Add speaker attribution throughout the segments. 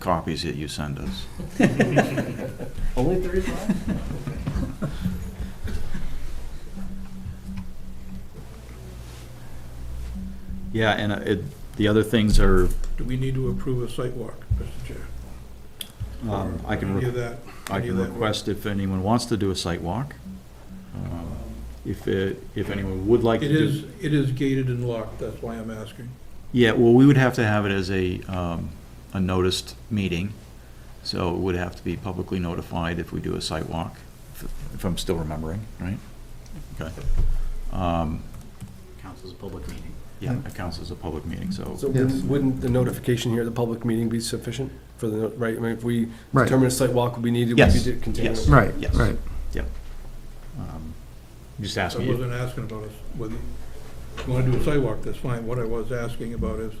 Speaker 1: copies that you send us.
Speaker 2: Only thirty-five?
Speaker 3: Yeah, and uh, it, the other things are,
Speaker 4: Do we need to approve a site walk, Mr. Chair?
Speaker 3: um, I can,
Speaker 4: Any of
Speaker 3: re-
Speaker 4: that?
Speaker 3: I
Speaker 4: any of
Speaker 3: can
Speaker 4: that work?
Speaker 3: request if anyone wants to do a site walk. Um, If, it- if anyone would like to
Speaker 4: It
Speaker 3: do.
Speaker 4: is, it is gated and locked, that's why I'm asking.
Speaker 3: Yeah, well, we would have to have it as a, um, a noticed meeting, so it would have to be publicly notified if we do a site walk, if- if I'm still remembering, right? Okay. Um,
Speaker 5: Council's a public meeting.
Speaker 3: Yeah, it counts as a public meeting, so.
Speaker 2: So
Speaker 6: Yes.
Speaker 2: wouldn't wouldn't the notification here, the public meeting be sufficient for the, no- right, I mean, if we
Speaker 6: Right.
Speaker 2: determine a site walk would be needed, we'd
Speaker 3: Yes,
Speaker 2: be continuing.
Speaker 3: yes.
Speaker 6: Right,
Speaker 3: Yes.
Speaker 6: right.
Speaker 3: um, Just
Speaker 4: I
Speaker 3: ask me.
Speaker 4: wasn't asking about us, whether you want to do a site walk, that's fine. What I was asking about is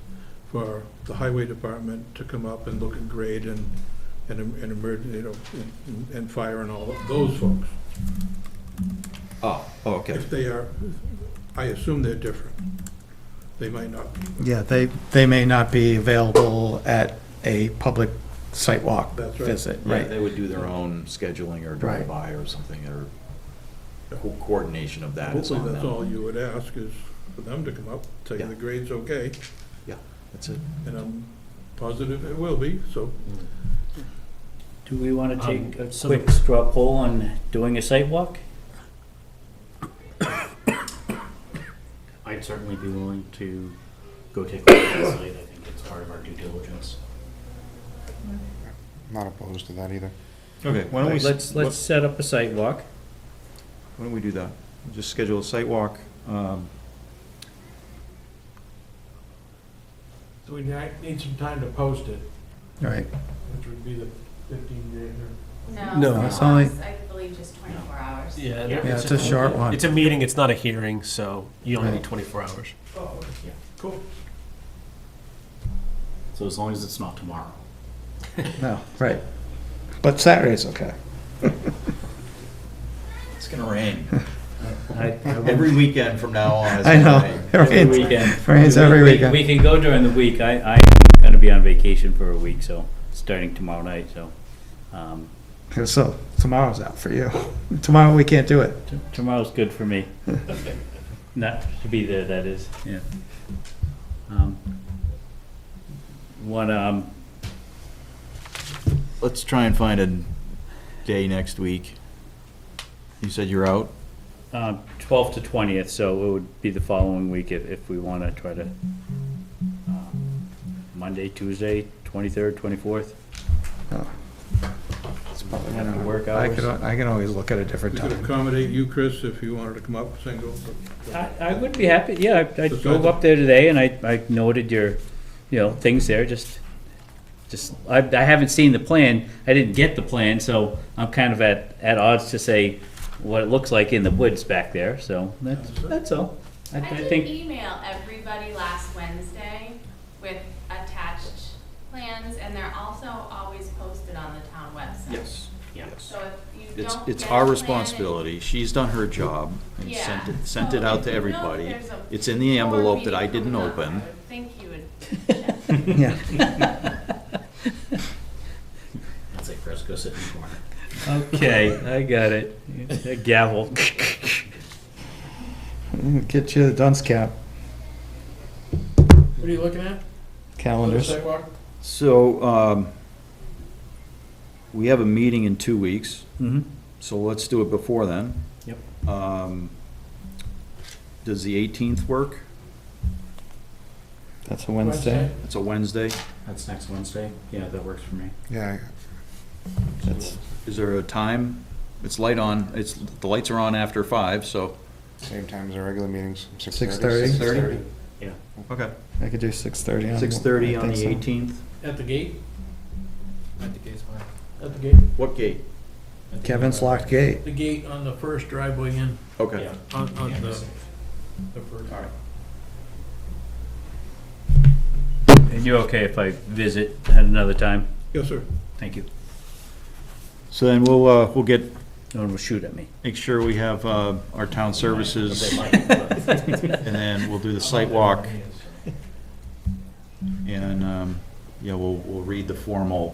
Speaker 4: for the highway department to come up and look at grade and, and, em- and emerg, you know, and- and fire and all of those folks.
Speaker 3: Oh, oh, okay.
Speaker 4: If they are, I assume they're different. They might not be.
Speaker 6: Yeah, they, they may not be available at a public site walk
Speaker 4: That's right.
Speaker 6: visit,
Speaker 3: Yeah,
Speaker 6: right?
Speaker 3: they would do their own scheduling or drive-by or something, or co- coordination of that is
Speaker 4: Hopefully,
Speaker 3: on
Speaker 4: that's
Speaker 3: them.
Speaker 4: all you would ask is for them to come up, tell you
Speaker 3: Yeah.
Speaker 4: the grade's okay,
Speaker 3: That's it.
Speaker 4: and I'm positive it will be, so
Speaker 7: Do we want to
Speaker 5: Um,
Speaker 7: take a
Speaker 5: so-
Speaker 7: quick straw poll on doing a site walk?
Speaker 5: I'd certainly be willing to go take a look at the site. I think it's part of our due diligence.
Speaker 8: Not opposed to that either.
Speaker 3: Okay, why don't we, s-
Speaker 7: Let's, let's set up a site walk.
Speaker 3: why don't we do that? Just schedule a site walk, um,
Speaker 9: So we ni- need some time to post it,
Speaker 6: Right.
Speaker 9: which would be the 15 day or
Speaker 6: No, it's only-
Speaker 10: I believe just 24 hours.
Speaker 5: Yeah,
Speaker 6: Yeah, it's a short one.
Speaker 9: It's a meeting, it's not a hearing, so you only need 24 hours.
Speaker 5: So as long as it's not tomorrow.
Speaker 6: No, right. But Saturday's okay.
Speaker 3: it's gonna rain.
Speaker 7: I- I will-
Speaker 3: Every weekend from now on. it's
Speaker 6: I know.
Speaker 3: gonna rain.
Speaker 6: Right.
Speaker 7: Every weekend.
Speaker 6: Rains every
Speaker 7: We- we-
Speaker 6: weekend.
Speaker 7: We can go during the week. I, I'm going to be on vacation for a week, so, starting tomorrow night, so. um,
Speaker 6: So tomorrow's out for you. Tomorrow we can't do it.
Speaker 7: t- Tomorrow's good for me. Not to be there, that is, yeah. Um, What, um,
Speaker 3: Let's try and find a day next week. You said you're out?
Speaker 7: um, 12th to 20th, so it would be the following week if, if we want to try to, um, Monday, Tuesday, 23rd, 24th.
Speaker 6: Oh.
Speaker 7: Kind of work
Speaker 6: I
Speaker 7: hours.
Speaker 6: could, al- I can always look at a different
Speaker 4: we could
Speaker 6: time.
Speaker 4: accommodate you, Chris, if you wanted to come up single. but-
Speaker 7: I, I would be happy, yeah, I I
Speaker 4: Just
Speaker 7: drove
Speaker 4: go.
Speaker 7: up there today and I, I noted your, you know, things there, just, just, I, I haven't seen the plan, I didn't get the plan, so I'm kind of at, at odds to say what it looks like in the woods back there, so that's, that's all. I,
Speaker 10: I
Speaker 7: I
Speaker 10: did
Speaker 7: think,
Speaker 10: email everybody last Wednesday with attached plans, and they're also always posted on the town website.
Speaker 3: Yes.
Speaker 5: Yeah.
Speaker 10: So if you
Speaker 3: It's,
Speaker 10: don't.
Speaker 3: it's
Speaker 10: get a
Speaker 3: our
Speaker 10: plan-
Speaker 3: responsibility. She's done her job and
Speaker 10: Yeah.
Speaker 3: sent it, sent
Speaker 10: So
Speaker 3: it out
Speaker 10: if
Speaker 3: to
Speaker 10: you know that
Speaker 3: everybody.
Speaker 10: there's a
Speaker 3: It's in the
Speaker 10: board
Speaker 3: envelope that
Speaker 10: meeting
Speaker 3: I didn't
Speaker 10: coming up, I
Speaker 3: open.
Speaker 10: would Think you would
Speaker 6: Yeah.
Speaker 5: I'd say Chris, go sit in the corner.
Speaker 7: okay, I got it, A gavel.
Speaker 6: Get you the dunce cap
Speaker 9: What are you looking at?
Speaker 6: calendars.
Speaker 9: Sidewalk?
Speaker 3: So, um, we have a meeting in two weeks,
Speaker 7: Mhm.
Speaker 3: so let's do it before then.
Speaker 5: Yep.
Speaker 3: Um, does the eighteenth work?
Speaker 6: That's a Wednesday.
Speaker 3: It's a Wednesday.
Speaker 5: That's next Wednesday. Yeah, that works for me.
Speaker 8: Yeah,
Speaker 6: That's,
Speaker 3: Is there a time? It's light on, it's, the lights are on after five, so.
Speaker 8: same time as our regular meetings, six thirty.
Speaker 6: 6:30?
Speaker 3: Okay.
Speaker 6: I could do six thirty on.
Speaker 3: Six thirty
Speaker 6: I
Speaker 3: on
Speaker 6: think
Speaker 3: the
Speaker 6: so.
Speaker 3: eighteenth.
Speaker 9: At the gate?
Speaker 5: I think it's fine.
Speaker 9: At the gate?
Speaker 3: What gate?
Speaker 6: Kevin's locked gate.
Speaker 9: The gate on the first driveway in,
Speaker 3: Okay.
Speaker 9: on, on the, the first. All right.
Speaker 7: And you're okay if I visit at another time?
Speaker 4: Yes, sir.
Speaker 7: Thank you.
Speaker 3: So then we'll, uh, we'll get,
Speaker 7: No one will shoot at me.
Speaker 3: make sure we have, uh, our town services and then we'll do the site walk. And, um, yeah, we'll, we'll read the formal